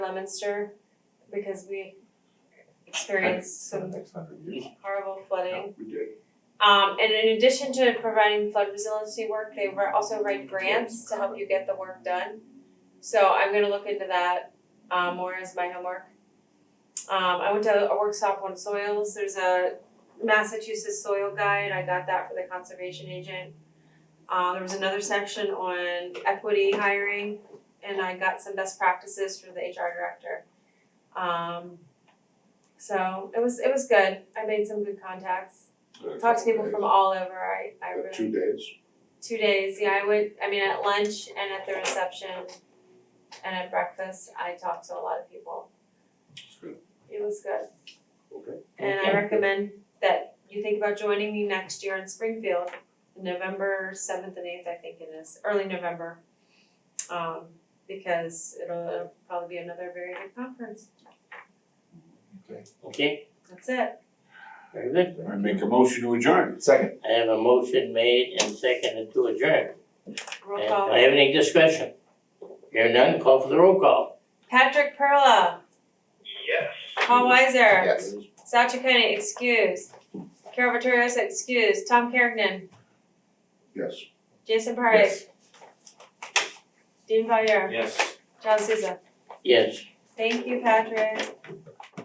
Lemonster because we experienced for the some next hundred years. horrible flooding. We did. Um, and in addition to providing flood resiliency work, they were also write grants to help you get the work done. So I'm gonna look into that uh, more as my homework. Um, I went to a workshop on soils. There's a Massachusetts soil guide. I got that for the conservation agent. Uh, there was another section on equity hiring, and I got some best practices for the HR director. Um, so it was it was good. I made some good contacts talked to people from all over. I, I Uh, really Two days, two days. Yeah, I would. I mean, at lunch and at the reception, and at breakfast, I talked to a lot of people. That's good. It was good, okay. and I recommend that you think about joining me next year in Springfield, November seventh and eighth. I think it is early November, um, because it'll, it'll probably be another very good conference. Okay, That's it. very good. I make a motion to adjourn. Second. I have a motion made and seconded to adjourn. Roll And do call. I have any discussion? Hearing none, call for the roll call. Patrick Perla, Yes. Paul Weiser. Yes. Satchel Koenig, excuse. Carol Vittorioso, excuse. Tom Kergnen, Yes. Jason Parry, Dean Valier, Yes. John Souza. Yes, Thank you, Patrick.